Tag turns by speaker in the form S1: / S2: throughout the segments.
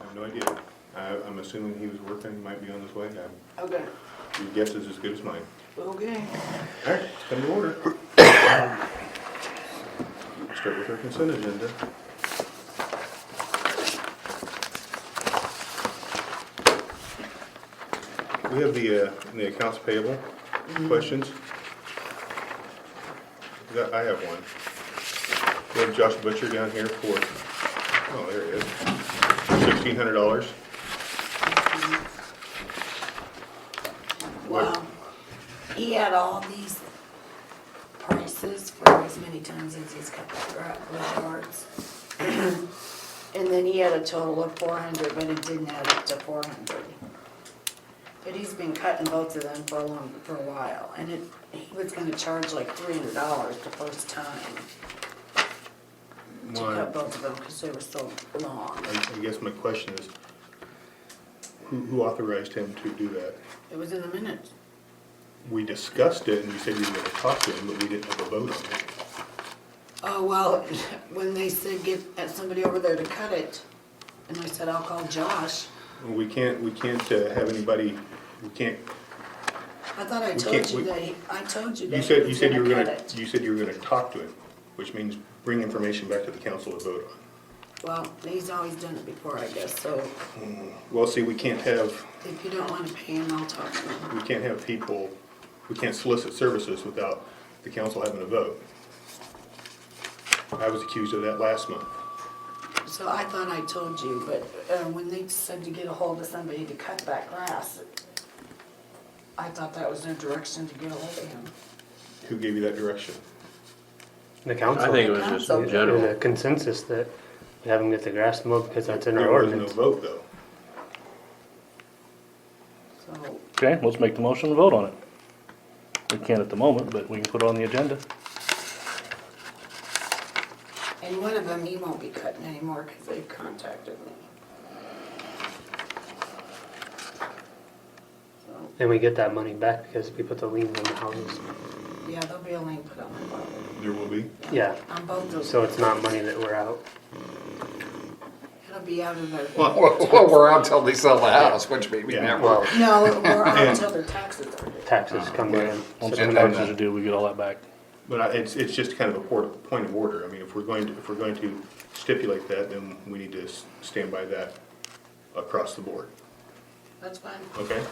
S1: have no idea. I, I'm assuming he was working, he might be on his way. I-
S2: Okay,
S1: Your guess is as good as mine.
S2: okay.
S1: All right, it's come to order. Start with our consent agenda. We have the, uh, the accounts payable questions. That- I have one. We have Josh Butcher down here for, oh, there he is, sixteen hundred dollars.
S2: Wow. He had all these prices for as many times as he's cut the garage yards. And then he had a total of four hundred, but it didn't add up to four hundred. But he's been cutting both of them for a long, for a while, and it, he was gonna charge like three hundred dollars the first time to
S1: My-
S2: cut both of them, cause they were so long.
S1: I I guess my question is, who, who authorized him to do that?
S2: It was in the minutes.
S1: We discussed it and you said you were gonna talk to him, but we didn't have a vote on it.
S2: Oh, well, when they said get uh, somebody over there to cut it, and I said, I'll call Josh,
S1: We can't, we can't uh, have anybody, we can't,
S2: I thought I
S1: We
S2: told
S1: can't-
S2: you
S1: we-
S2: that, he- I told you that.
S1: you
S2: he
S1: said,
S2: was
S1: you said you were gonna,
S2: cut it.
S1: you said you were gonna talk to him, which means bring information back to the council to vote on.
S2: Well, he's always done it before, I guess, so
S1: Well, see, we can't have,
S2: if you don't wanna pay him, I'll talk to him.
S1: we can't have people, we can't solicit services without the council having a vote. I was accused of that last month.
S2: So I thought I told you, but, uh, when they said to get a hold of somebody to cut that grass, I thought that was their direction to get a hold of him.
S1: Who gave you that direction?
S3: The council.
S4: I think it was just
S2: Council.
S4: in
S3: There's
S4: general.
S3: a consensus that we have them get the grass mowed because that's in our
S1: There was no
S3: ordinance.
S1: vote though.
S2: So,
S5: Okay, let's make the motion and vote on it. We can't at the moment, but we can put it on the agenda.
S2: and one of them, he won't be cutting anymore, cause they've contacted me. So.
S3: And we get that money back because we put the lien on the houses.
S2: Yeah, there'll be a lien put on the property,
S1: There will be.
S3: Yeah,
S2: on both those.
S3: so it's not money that we're out.
S2: It'll be out of their.
S6: Well, well, we're out till they sell the house, which may be
S1: Yeah.
S6: never.
S3: Well,
S2: No, we're out until their taxes are due.
S4: Ah,
S3: taxes come in. So
S5: Once the
S6: And
S3: then-
S6: then-
S5: taxes are due, we get all that back.
S1: But I, it's, it's just kind of a port, point of order. I mean, if we're going to, if we're going to stipulate that, then we need to s- stand by that across the board,
S2: That's fine.
S1: okay?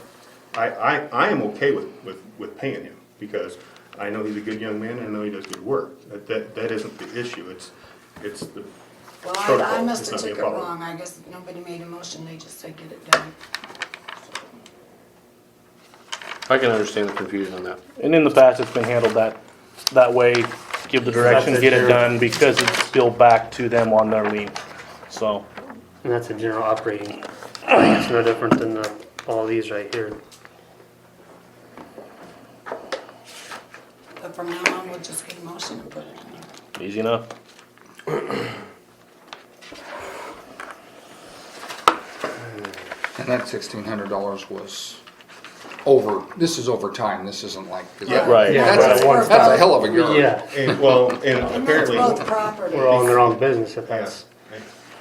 S1: I, I, I am okay with, with, with paying him, because I know he's a good young man, and I know he does good work. That, that, that isn't the issue, it's, it's the
S2: Well,
S1: protocol.
S2: I, I must
S1: It's
S2: have
S1: not
S2: took it
S1: their problem.
S2: wrong, I guess nobody made a motion, they just said get it done.
S4: I can understand the confusion on that.
S5: And in the past, it's been handled that, that way, give the direction,
S3: That's
S5: get it
S3: true.
S5: done, because it's still back to them on their lien. So,
S3: And that's a general operating. It's no different than the, all these right here.
S2: But from now on, we'll just get a motion and put it in.
S5: easy enough.
S6: And that sixteen hundred dollars was over, this is over time, this isn't like.
S1: Yeah,
S5: right.
S3: Yeah,
S6: That's,
S2: right.
S6: a- that's a hell of a yard.
S3: Yeah,
S1: And, well, and
S2: And that's
S1: apparently.
S2: both properties.
S3: we're all in the wrong business if
S1: Yeah.
S3: that's,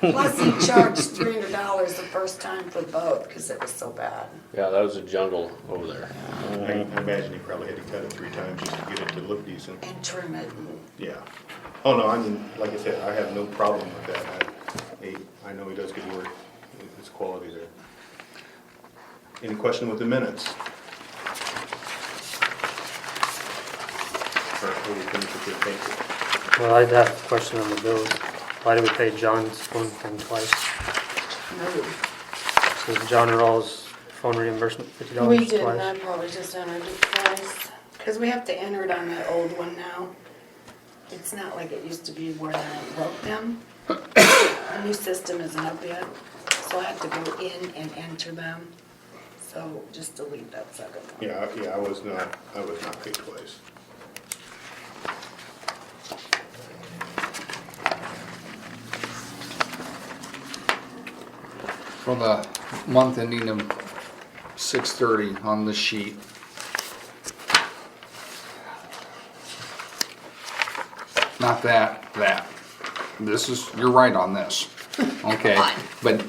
S2: Plus he charged three hundred dollars the first time for both, cause it was so bad.
S4: Yeah, that was a jungle over there.
S1: I I imagine he probably had to cut it three times just to get it to look decent.
S2: And trim it and
S1: Yeah. Oh, no, I mean, like I said, I have no problem with that. I, he- I know he does good work. It's quality there. Any question with the minutes? Or are we finished with the thank
S3: well, I'd have a question on the bills. Why do we pay John's phone thing twice?
S2: move.
S3: So is John Rawls phone reimbursement fifty dollars
S2: We
S3: twice?
S2: didn't, I probably just entered it twice, cause we have to enter it on the old one now. It's not like it used to be where I wrote them. The new system isn't up yet, so I have to go in and enter them, so just delete that second
S1: you?
S2: one.
S1: Yeah, I- yeah, I was not, I was not paid twice.
S6: For the month ending in six thirty on the sheet. Not that, that. This is, you're right on this. Okay, but